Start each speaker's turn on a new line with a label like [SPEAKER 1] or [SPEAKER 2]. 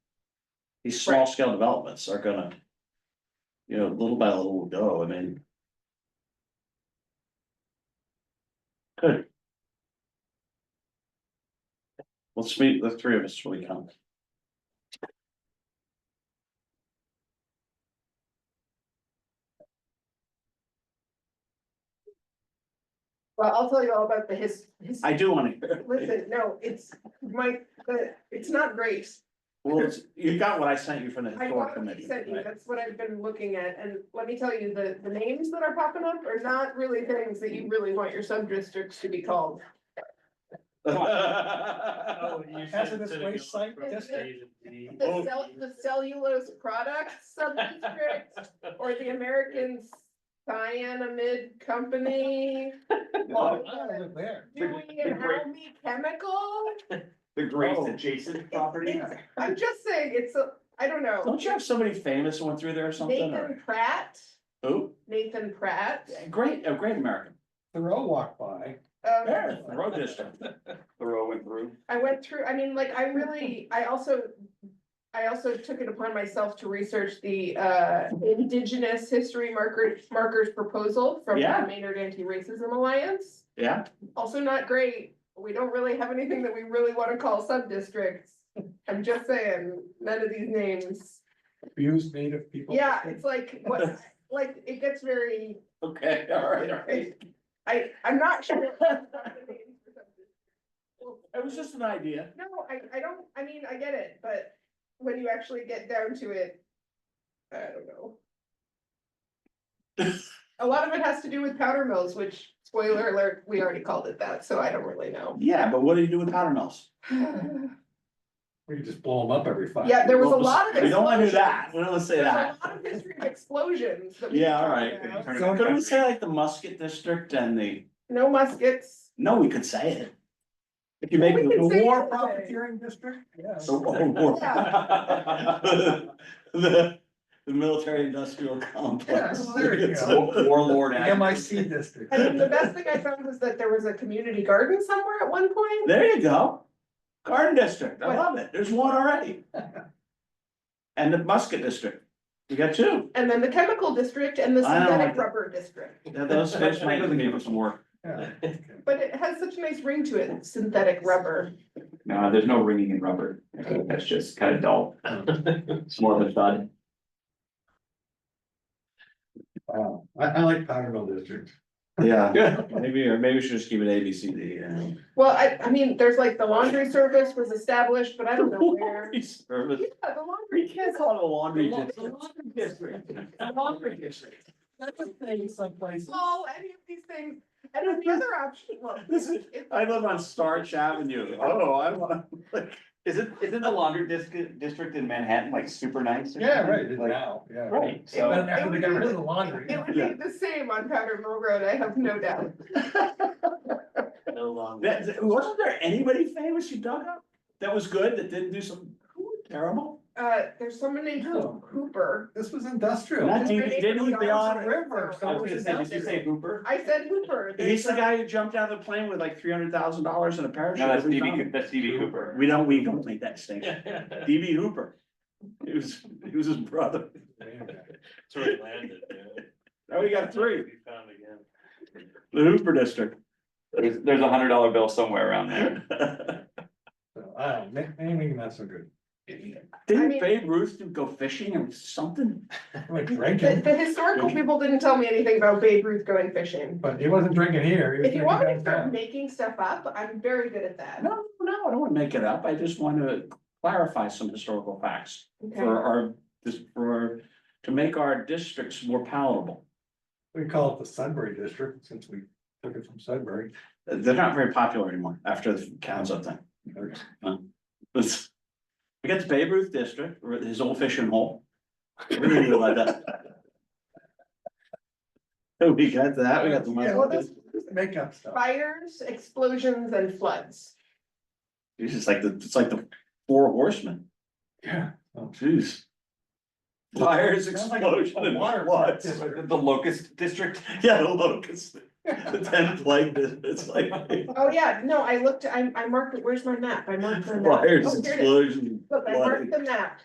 [SPEAKER 1] these small scale developments are gonna. You know, little by little will go, I mean. Good. Let's meet the three of us when we come.
[SPEAKER 2] Well, I'll tell you all about the his, his,
[SPEAKER 1] I do wanna hear.
[SPEAKER 2] listen, no, it's my, the- it's not great.
[SPEAKER 1] Well, it's- you got what I sent you from the
[SPEAKER 2] I
[SPEAKER 1] historic
[SPEAKER 2] want to
[SPEAKER 1] committee.
[SPEAKER 2] send you,
[SPEAKER 1] right?
[SPEAKER 2] that's what I've been looking at, and let me tell you, the, the names that are popping up are not really things that you really want your sub-districts to be called.
[SPEAKER 3] Oh, you
[SPEAKER 4] Hazardous
[SPEAKER 3] said instead of
[SPEAKER 4] waste
[SPEAKER 3] going
[SPEAKER 4] site
[SPEAKER 3] from
[SPEAKER 2] district?
[SPEAKER 3] A to B.
[SPEAKER 1] Oh.
[SPEAKER 2] The cell, the cellulose products sub-district, or the American Cyanamid Company,
[SPEAKER 4] Oh, I don't live there.
[SPEAKER 2] Dewey and Helmy Chemical.
[SPEAKER 5] The great
[SPEAKER 1] Oh.
[SPEAKER 5] adjacent
[SPEAKER 2] It's-
[SPEAKER 5] property.
[SPEAKER 2] I'm just saying, it's, a I don't know,
[SPEAKER 1] Don't you have somebody famous who went through there or something, or
[SPEAKER 2] Nathan Pratt,
[SPEAKER 1] who?
[SPEAKER 2] Nathan Pratt.
[SPEAKER 1] Great, a great American,
[SPEAKER 4] Thoreau walked by.
[SPEAKER 2] Um,
[SPEAKER 1] yeah, road district.
[SPEAKER 5] Thoreau went through.
[SPEAKER 2] I went through, I mean, like, I really, I also. I also took it upon myself to research the uh indigenous history markers markers proposal from
[SPEAKER 1] Yeah.
[SPEAKER 2] the Maynard Anti-Racism Alliance.
[SPEAKER 1] Yeah,
[SPEAKER 2] Also not great, we don't really have anything that we really wanna call sub-districts. I'm just saying, none of these names,
[SPEAKER 4] Abused native people.
[SPEAKER 2] yeah, it's like, what, like, it gets very,
[SPEAKER 1] okay, all right, all right.
[SPEAKER 2] I, I'm not sure.
[SPEAKER 1] It was just an idea.
[SPEAKER 2] No, I, I don't, I mean, I get it, but when you actually get down to it, I don't know. A lot of it has to do with powder mills, which spoiler alert, we already called it that, so I don't really know.
[SPEAKER 1] Yeah, but what do you do with powder mills?
[SPEAKER 4] We could just blow them up every five.
[SPEAKER 2] Yeah, there was a
[SPEAKER 1] Well,
[SPEAKER 2] lot of.
[SPEAKER 1] We don't wanna do
[SPEAKER 2] explosions.
[SPEAKER 1] that, we don't wanna say
[SPEAKER 2] There's
[SPEAKER 1] that.
[SPEAKER 2] a lot of history of explosions. that we
[SPEAKER 1] Yeah,
[SPEAKER 2] can
[SPEAKER 1] all
[SPEAKER 2] talk
[SPEAKER 1] right.
[SPEAKER 2] about.
[SPEAKER 5] Turn it
[SPEAKER 4] So
[SPEAKER 5] back.
[SPEAKER 1] Could we say like the musket district and the,
[SPEAKER 2] No muskets.
[SPEAKER 1] no, we could say it. If you make
[SPEAKER 2] We
[SPEAKER 1] it
[SPEAKER 2] can
[SPEAKER 1] the
[SPEAKER 2] say
[SPEAKER 1] war
[SPEAKER 2] it.
[SPEAKER 4] Profiteering district, yes.
[SPEAKER 1] The war. The, the military industrial complex.
[SPEAKER 4] Yeah, there you
[SPEAKER 1] It's
[SPEAKER 4] go.
[SPEAKER 1] a Warlord. act.
[SPEAKER 4] M I C district.
[SPEAKER 2] I mean, the best thing I found was that there was a community garden somewhere at one point.
[SPEAKER 1] There you go. Garden district, I love it, there's one already. And the musket district, you got two,
[SPEAKER 2] And then the chemical district and the
[SPEAKER 1] I don't
[SPEAKER 2] synthetic
[SPEAKER 1] like that.
[SPEAKER 2] rubber district,
[SPEAKER 1] Now, those fish might give us some work.
[SPEAKER 4] Yeah.
[SPEAKER 2] but it has such a nice ring to it, synthetic rubber.
[SPEAKER 5] No, there's no ringing in rubber. I think That's just kind of dull. It's more of a thud.
[SPEAKER 4] Wow, I, I like powder mill district.
[SPEAKER 1] Yeah. Maybe, or maybe we should just keep it A, B, C, D, E, and.
[SPEAKER 2] Well, I, I mean, there's like the laundry service was established, but I don't know where.
[SPEAKER 1] Laundry Service.
[SPEAKER 2] Yeah, the
[SPEAKER 1] We
[SPEAKER 2] laundry
[SPEAKER 1] can't
[SPEAKER 2] kids,
[SPEAKER 1] call it a laundry district.
[SPEAKER 4] Laundry district. Laundry district. That's a thing someplace.
[SPEAKER 2] all, any of these things, and then the other option was.
[SPEAKER 1] This is- I live on Starch Avenue, oh, I wanna, like,
[SPEAKER 5] Isn't, isn't the laundry district, district in Manhattan like super nice? or
[SPEAKER 4] Yeah,
[SPEAKER 5] something?
[SPEAKER 4] right, it is
[SPEAKER 5] Like,
[SPEAKER 4] now, yeah.
[SPEAKER 5] Right,
[SPEAKER 4] So
[SPEAKER 5] so.
[SPEAKER 4] after they got rid of the laundry.
[SPEAKER 2] It would be the same on Powder Mill Road, I have no doubt.
[SPEAKER 3] No longer.
[SPEAKER 1] that, that- wasn't there anybody famous you dug up? That was good, that didn't do some terrible?
[SPEAKER 2] Uh, there's someone named Ho- Hooper.
[SPEAKER 4] This was industrial.
[SPEAKER 1] Not you, didn't we,
[SPEAKER 4] Beyond
[SPEAKER 1] beyond,
[SPEAKER 4] River.
[SPEAKER 5] I was gonna say, did you say Hooper?
[SPEAKER 2] I said Hooper.
[SPEAKER 1] he's the
[SPEAKER 2] there's a-
[SPEAKER 1] guy who jumped out of the plane with like three hundred thousand dollars in a parachute.
[SPEAKER 5] No, that's
[SPEAKER 1] We
[SPEAKER 5] DB,
[SPEAKER 1] found
[SPEAKER 5] Coo-
[SPEAKER 1] him.
[SPEAKER 5] that's DB Cooper.
[SPEAKER 1] We don't, we don't make that distinction. DB Hooper. It was, it was his brother.
[SPEAKER 3] Sort of landed, yeah.
[SPEAKER 1] Now Oh, we got three,
[SPEAKER 3] We found again.
[SPEAKER 1] the Hooper district.
[SPEAKER 5] There's, there's a hundred dollar bill somewhere around there.
[SPEAKER 4] So, I don't, know, na- naming not so good.
[SPEAKER 2] I
[SPEAKER 1] Didn't
[SPEAKER 2] mean-
[SPEAKER 1] Babe Ruth do- go fishing or something?
[SPEAKER 4] Like
[SPEAKER 2] The,
[SPEAKER 4] drinking,
[SPEAKER 2] the historical people didn't tell me anything about Babe Ruth going fishing.
[SPEAKER 4] but he wasn't drinking here. he was
[SPEAKER 2] If you
[SPEAKER 4] drinking
[SPEAKER 2] want me to start
[SPEAKER 4] downtown.
[SPEAKER 2] making stuff up, I'm very good at that.
[SPEAKER 1] No, no, I don't wanna make it up, I just wanna clarify some historical facts
[SPEAKER 2] Okay,
[SPEAKER 1] for our, this, for, to make our districts more palatable.
[SPEAKER 4] We call it the Sudbury district since we took it from Sudbury.
[SPEAKER 1] They're not very popular anymore after the Kansas thing. It's- We got the Babe Ruth district, or his old fishing hole. We need to let that- We got that, we got the.
[SPEAKER 4] Yeah, well, that's just Makeup stuff.
[SPEAKER 2] fires, explosions and floods.
[SPEAKER 1] It's just like the, it's like the four horsemen,
[SPEAKER 4] Yeah.
[SPEAKER 1] jeez. Fires,
[SPEAKER 4] Sounds like a-
[SPEAKER 1] explosion
[SPEAKER 4] a
[SPEAKER 1] and
[SPEAKER 4] water
[SPEAKER 1] floods.
[SPEAKER 4] crisis.
[SPEAKER 5] The the locust district.
[SPEAKER 1] Yeah, the locust, the ten plague, it's like
[SPEAKER 2] Oh, yeah, no, I looked, I, I marked, it. where's my map? I marked the map.
[SPEAKER 1] fires,
[SPEAKER 2] Oh, here it is.
[SPEAKER 1] explosion.
[SPEAKER 2] Look, I marked the map.